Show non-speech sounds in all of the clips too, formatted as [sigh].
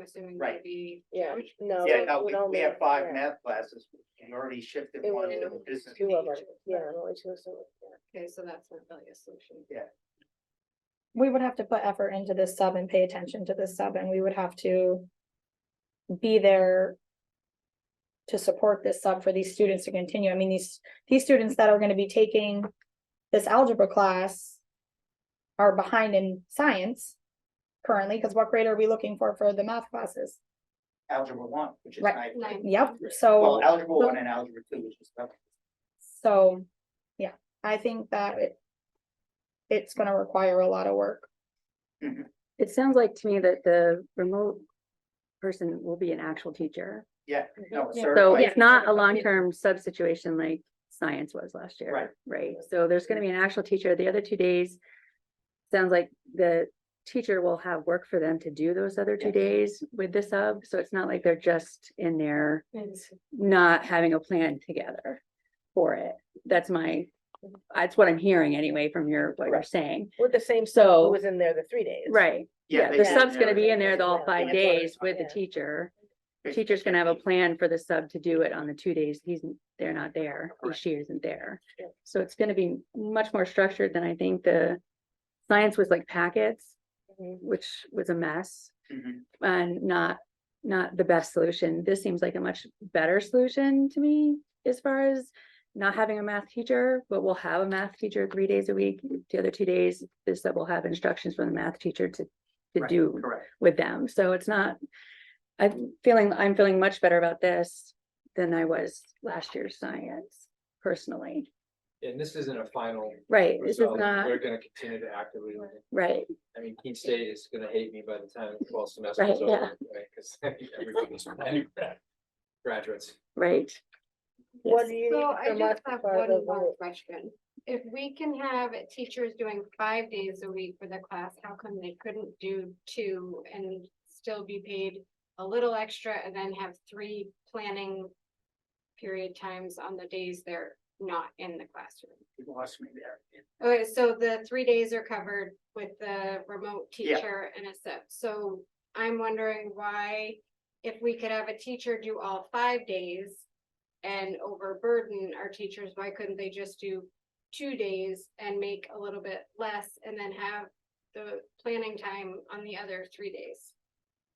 assuming Right. would be. Yeah, Which- no. Yeah, no, we we, don't we know. have five Yeah. math classes, we already shifted It one was to the business. Two of them, major. yeah, only two of them. Okay, so that's not really a solution. we would have to put effort into this sub and pay attention to this sub and we would have to be there to support this sub for these students to continue. I mean, these, these students that are gonna be taking this algebra class are behind in science currently, because what grade are we looking for for the math classes? Algebra one, which is Right. nine, Nine. Yep, well, so, algebra one and algebra two, which is. up. so, yeah, I think that it it's gonna require a lot of work. It sounds like to me that the remote person will be an actual teacher. Yeah, Mhm. no, it's Yeah. So certified, it's not a long-term sub situation like science was last year. Right. Right, so there's gonna be an actual teacher. The other two days, sounds like the teacher will have work for them to do those other two Yeah. days with the sub. So it's not like they're just in there It's- not having a plan together for it. That's my, that's what I'm hearing anyway from your, what you're Correct. saying. We're the same, So- so who was in there the three days. Right, yeah. yeah, they the said sub's gonna be in they're- there the all five Yeah. days with the Yeah. teacher. Right. Teacher's gonna have a plan for the sub to do it on the two days he's, they're not there, or Correct. she isn't there. Yeah. So it's gonna be much more structured than I think the science was like packets, Mhm. which was a mess Mhm. and not, not the best solution. This seems like a much better solution to me as far as not having a math teacher, but we'll have a math teacher three days a week. The other two days, this that will have instructions from the math teacher to, to Right, do Correct, with them. So it's not, I'm feeling, I'm feeling much better about this than I was last year's science personally. And this isn't a final. Right, this is result. not, We're gonna continue to actively, right, I mean, Keene State is gonna hate me by the time the fall semester is Right, over, yeah. right? Cause [laughs] [laughs] everybody's planning grad- graduates. right. What Yes. do you need So I from us just have for the one more vote? question. If we can have teachers doing five days a week for the class, how come they couldn't do two and still be paid a little extra and then have three planning period times on the days they're not in the classroom? you lost me there. Okay, so the three days are covered with the remote Yeah. teacher and a sub, so I'm wondering why. If we could have a teacher do all five days. And overburden our teachers, why couldn't they just do two days and make a little bit less and then have? The planning time on the other three days.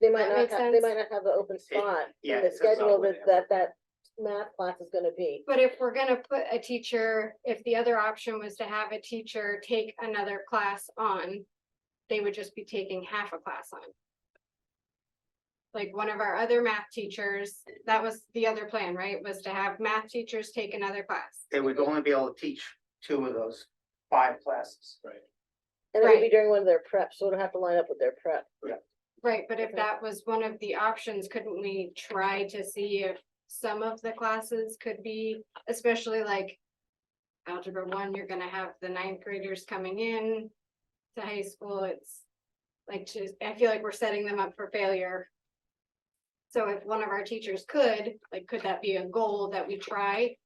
They might That not makes have, they sense. might not have the open spot, yeah, in the it's just not schedule what that, that, that math class is gonna be. But if we're gonna put a teacher, if the other option was to have a teacher take another class on. They would just be taking half a class on. Like one of our other math teachers, that was the other plan, right, was to have math teachers take another class. They would only be able to teach two of those five classes. Right. And it'll be Right. during one of their preps, so it'll have to line up with their prep. Right, but if Okay. that was one of the options, couldn't we try to see if some of the classes could be, especially like. Algebra one, you're gonna have the ninth graders coming in to high school, it's. Like, to- I feel like we're setting them up for failure. So if one of our teachers could, like, could that be a goal that we try?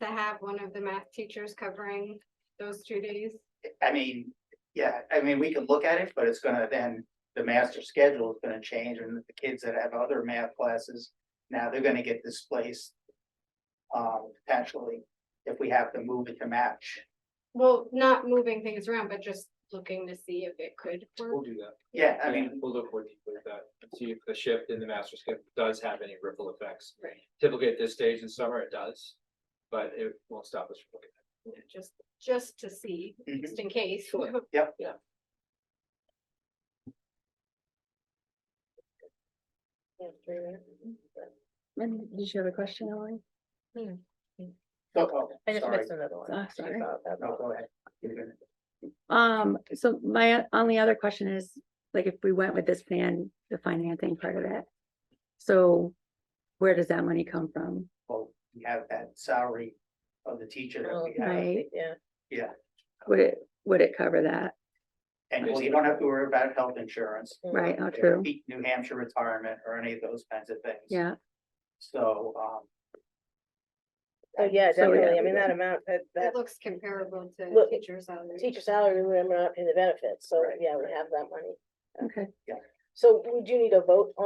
To have one of the math teachers covering those two days? I mean, yeah, I mean, we could look at it, but it's gonna then, the master schedule is gonna change and the kids that have other math classes, now they're gonna get displaced. Um, potentially, if we have to move it to match. Well, not moving things around, but just looking to see if it could work. We'll do that. Yeah, I mean, We'll look more deeply at that, and see if the shift in the master's schedule does have any ripple effects. Right. Typically at this stage in summer, it does, but it won't stop us from looking. Yeah, Just, just to see, Mhm. Mm-hmm. just in case. [laughs] Sure. Yeah, three minutes. And did you have a question, Ellen? so, oh, I just sorry, missed another one. Ah, sorry. About that. no, go ahead. You're gonna- Um, so my only other question is, like, if we went with this plan, the financing part of it. So where does that money come from? Well, we have that salary of the teacher that we have, Right, Yeah, would it, would it cover that? and well, you don't have to worry about health insurance. Right, oh, true, New Hampshire retirement or any of those kinds of things. yeah, So, um, oh, yeah, So, yeah, definitely, I we mean, did. that amount, that, that It looks comparable to Look, teacher salary. teacher salary, we're not paying the benefits, so, Right, yeah, we right. have that money. okay. So we do need a vote on